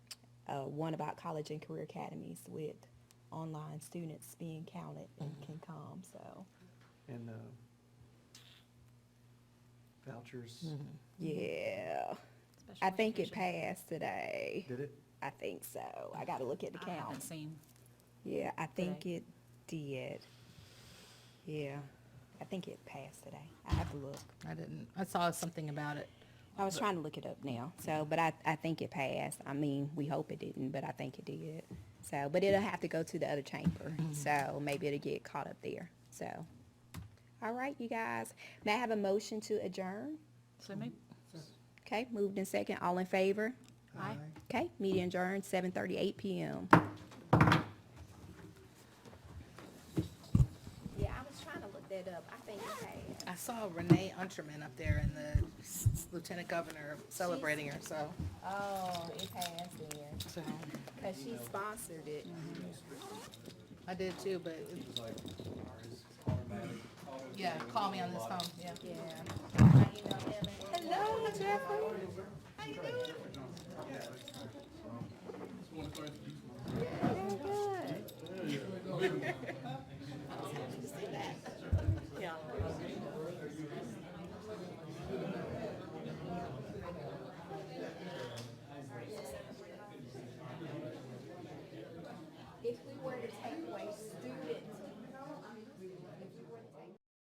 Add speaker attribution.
Speaker 1: uh, one about college and career academies with online students being counted and can come, so,
Speaker 2: And uh, vouchers,
Speaker 1: yeah. I think it passed today.
Speaker 2: did it?
Speaker 1: I think so. I gotta look at the
Speaker 3: I haven't
Speaker 1: count.
Speaker 3: seen.
Speaker 1: Yeah, I think
Speaker 3: today.
Speaker 1: it did. Yeah, I think it passed today. I have to look.
Speaker 4: I didn't, I saw something about it.
Speaker 1: I was trying to look it up now, so, but I, I think it passed. I mean, we hope it didn't, but I think it did. So, but it'll have to go to the other chamber, so maybe it'll get caught up there, so. All right, you guys, may I have a motion to adjourn?
Speaker 3: So maybe,
Speaker 1: Okay, moved in second, all in favor?
Speaker 3: I,
Speaker 1: Okay, meeting adjourned, seven thirty-eight PM. Yeah, I was trying to look that up. I think it passed.
Speaker 4: I saw Renee Unterman up there and the s- lieutenant governor celebrating her, so.
Speaker 1: Oh, it passed then,
Speaker 4: so,
Speaker 1: because she sponsored it.
Speaker 4: I did too, but. Yeah, call me on this phone, yeah.
Speaker 1: Yeah.
Speaker 4: Hello, Jeffrey. How you doing?
Speaker 1: Very good.